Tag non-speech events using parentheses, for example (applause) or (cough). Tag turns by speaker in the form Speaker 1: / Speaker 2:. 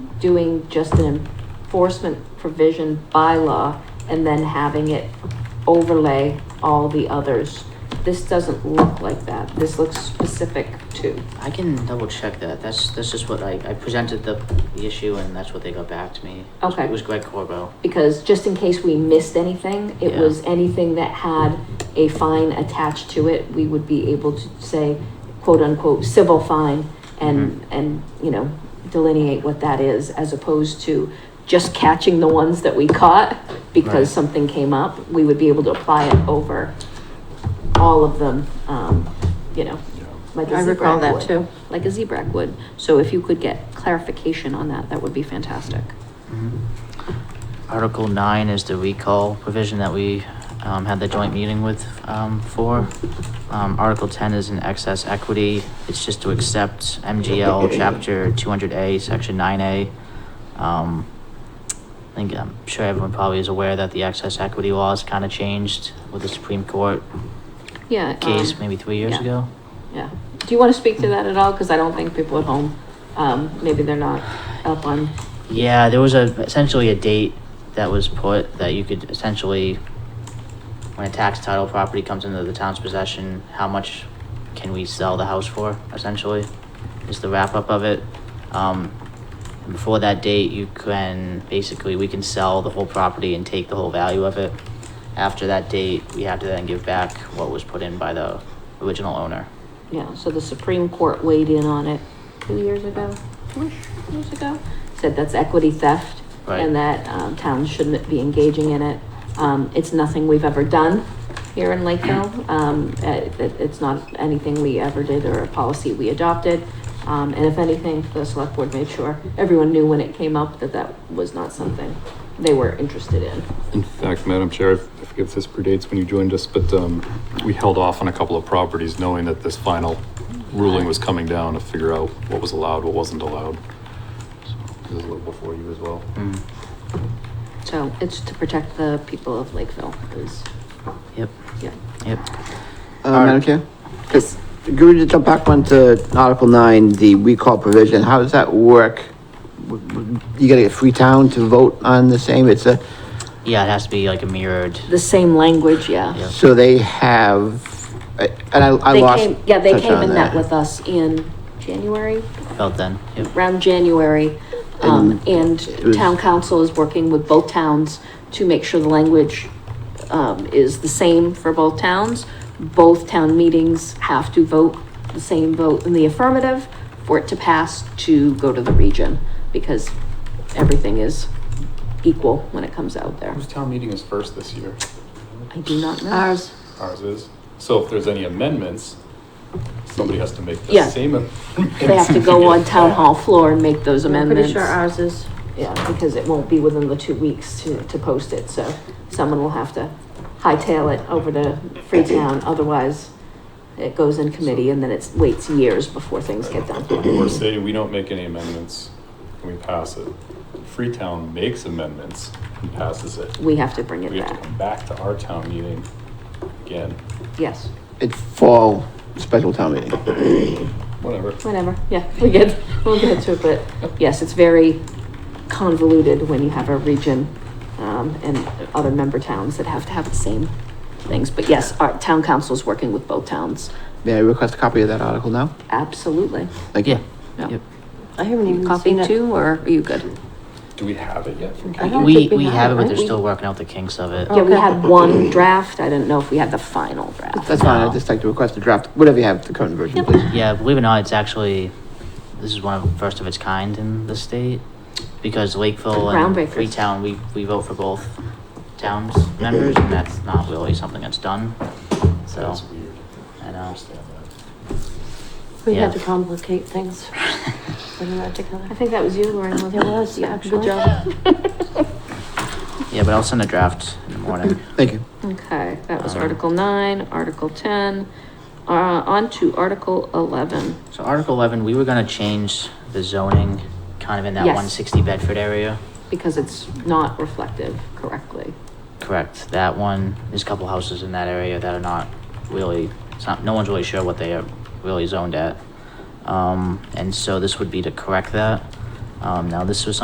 Speaker 1: doing just an enforcement provision bylaw and then having it overlay all the others. This doesn't look like that. This looks specific to.
Speaker 2: I can double check that. That's, this is what I, I presented the, the issue and that's what they got back to me. It was-
Speaker 1: Okay.
Speaker 2: It was Greg Corbo.
Speaker 1: Because just in case we missed anything, it
Speaker 2: Yeah.
Speaker 1: was anything that had a fine attached to it, we would be able to say quote unquote civil fine
Speaker 2: Mm-hmm.
Speaker 1: and, and, you know, delineate what that is as opposed to just catching the ones that we caught
Speaker 2: Right.
Speaker 1: because something came up, we would be able to apply it over all of them, um, you know, like a
Speaker 3: I recall
Speaker 1: zebra
Speaker 3: that
Speaker 1: would.
Speaker 3: too.
Speaker 1: Like a zebra would. So if you could get clarification on that, that would be fantastic. Mm-hmm.
Speaker 2: Article nine is the recall provision that we, um, had the joint meeting with, um, for. Um, Article ten is an excess equity. It's just to
Speaker 1: (laughs)
Speaker 2: accept MGL chapter two hundred A, section nine A. Um, I think, I'm sure everyone probably is aware that the excess equity law has kind of changed with the Supreme Court
Speaker 1: Yeah.
Speaker 2: case
Speaker 1: um,
Speaker 2: maybe three years
Speaker 1: yeah.
Speaker 2: ago.
Speaker 1: Yeah. Do you want to speak to that at all? Because I don't think people at home, um, maybe they're not up on,
Speaker 2: Yeah, there was a essentially a date that was put that you could essentially, when a tax title property comes into the town's possession, how much can we sell the house for? Essentially, is the wrap up of it. Um, and before that date, you can basically we can sell the whole property and take the whole value of it. After that date, we have to then give back what was put in by the original owner.
Speaker 1: yeah, so the Supreme Court weighed in on it two years ago, two years ago, said that's equity theft
Speaker 2: Right.
Speaker 1: and that, um, towns shouldn't be engaging in it. Um, it's nothing we've ever done here in Lakeville. Um, uh, it, it's not anything we ever did or a policy we adopted. Um, and if anything, the select board made sure everyone knew when it came up that that was not something they were interested in.
Speaker 4: In fact, Madam Chair, I forget if this predates when you joined us, but um, we held off on a couple of properties knowing that this final ruling was coming down to figure out what was allowed, what wasn't allowed. So, This is a little before you as well.
Speaker 2: Mm.
Speaker 1: So it's to protect the people of Lakeville is,
Speaker 2: Yep.
Speaker 1: yeah.
Speaker 2: Yep.
Speaker 5: Uh,
Speaker 2: Alright.
Speaker 5: Madam Chair? Could we just jump back one to Article nine, the recall provision? How does that work? W- w- You gotta get Free Town to vote on the same? It's a,
Speaker 2: Yeah, it has to be like a mirrored.
Speaker 1: The same language,
Speaker 2: Yeah.
Speaker 1: yeah.
Speaker 5: so they have, I- and I, I
Speaker 1: They
Speaker 5: lost.
Speaker 1: came, yeah, they
Speaker 5: touch
Speaker 1: came
Speaker 5: on
Speaker 1: and met with us in January,
Speaker 2: Felt then. Yep.
Speaker 1: around January. Um, and
Speaker 5: it was-
Speaker 1: town council is working with both towns to make sure the language, um, is the same for both towns. Both town meetings have to vote the same vote in the affirmative for it to pass to go to the region because everything is equal when it comes out there.
Speaker 4: Whose town meeting is first this year?
Speaker 1: I do not know.
Speaker 3: Ours,
Speaker 4: Ours is. So if there's any amendments, somebody has to make the
Speaker 1: Yeah.
Speaker 4: same. am-
Speaker 1: They have to
Speaker 4: (laughs)
Speaker 1: go on town hall floor and make those
Speaker 3: I'm
Speaker 1: amendments.
Speaker 3: pretty sure ours is.
Speaker 1: Yeah, because it won't be within the two weeks to, to post it, so someone will have to hightail it over to Freetown, otherwise it goes in committee and then it waits years before things get done.
Speaker 4: We're saying we don't make any amendments and we pass it. Freetown makes amendments and passes it.
Speaker 1: We have to bring it
Speaker 4: We have to
Speaker 1: back,
Speaker 4: come back to our town meeting again,
Speaker 1: yes,
Speaker 5: It's fall special town meeting.
Speaker 4: whatever.
Speaker 1: whenever, yeah, we get, we'll get to it, but yes, it's very convoluted when you have a region, um, and other member towns that have to have the same things, but yes, our town council's working with both towns,
Speaker 5: May I request a copy of that article now?
Speaker 1: absolutely.
Speaker 5: Thank you.
Speaker 2: Yeah.
Speaker 1: Yeah.
Speaker 2: Yep.
Speaker 3: I haven't even
Speaker 1: Coffee
Speaker 3: seen it.
Speaker 1: too, or are you good?
Speaker 4: Do we have it yet from
Speaker 3: I
Speaker 4: Kate?
Speaker 3: don't
Speaker 2: We,
Speaker 3: think
Speaker 2: we have it, but
Speaker 3: right?
Speaker 2: they're
Speaker 3: We-
Speaker 2: still working out the kinks of it.
Speaker 1: Yeah, we
Speaker 3: Okay.
Speaker 1: had one draft. I didn't know if we had the final draft.
Speaker 5: That's fine. I'd just like to request a draft, whatever you have, the current version, please.
Speaker 2: Yeah, believe it or not, it's actually, this is one of, first of its kind in the state. Because Lakeville and
Speaker 1: Groundbreakers.
Speaker 2: Freetown, we, we vote for both towns members, and that's not really something that's done. So,
Speaker 4: That's weird.
Speaker 2: I
Speaker 4: I
Speaker 2: know. (laughs)
Speaker 4: understand that.
Speaker 3: We had
Speaker 2: Yeah.
Speaker 3: to complicate things (laughs) when we were together.
Speaker 1: I think that was you, Lauren. wasn't
Speaker 3: It was,
Speaker 1: Yeah,
Speaker 3: actually.
Speaker 1: Good job.
Speaker 2: Yeah, but I'll send a draft in the morning.
Speaker 5: (laughs) Thank you.
Speaker 1: Okay, that was
Speaker 2: Um,
Speaker 1: Article nine, Article ten, uh, on to Article eleven.
Speaker 2: So Article eleven, we were gonna change the zoning kind of in that
Speaker 1: Yes.
Speaker 2: one sixty Bedford area.
Speaker 1: Because it's not reflective correctly.
Speaker 2: Correct, that one, there's a couple houses in that area that are not really, it's not, no one's really sure what they are really zoned at. Um, and so this would be to correct that. Um, now this was something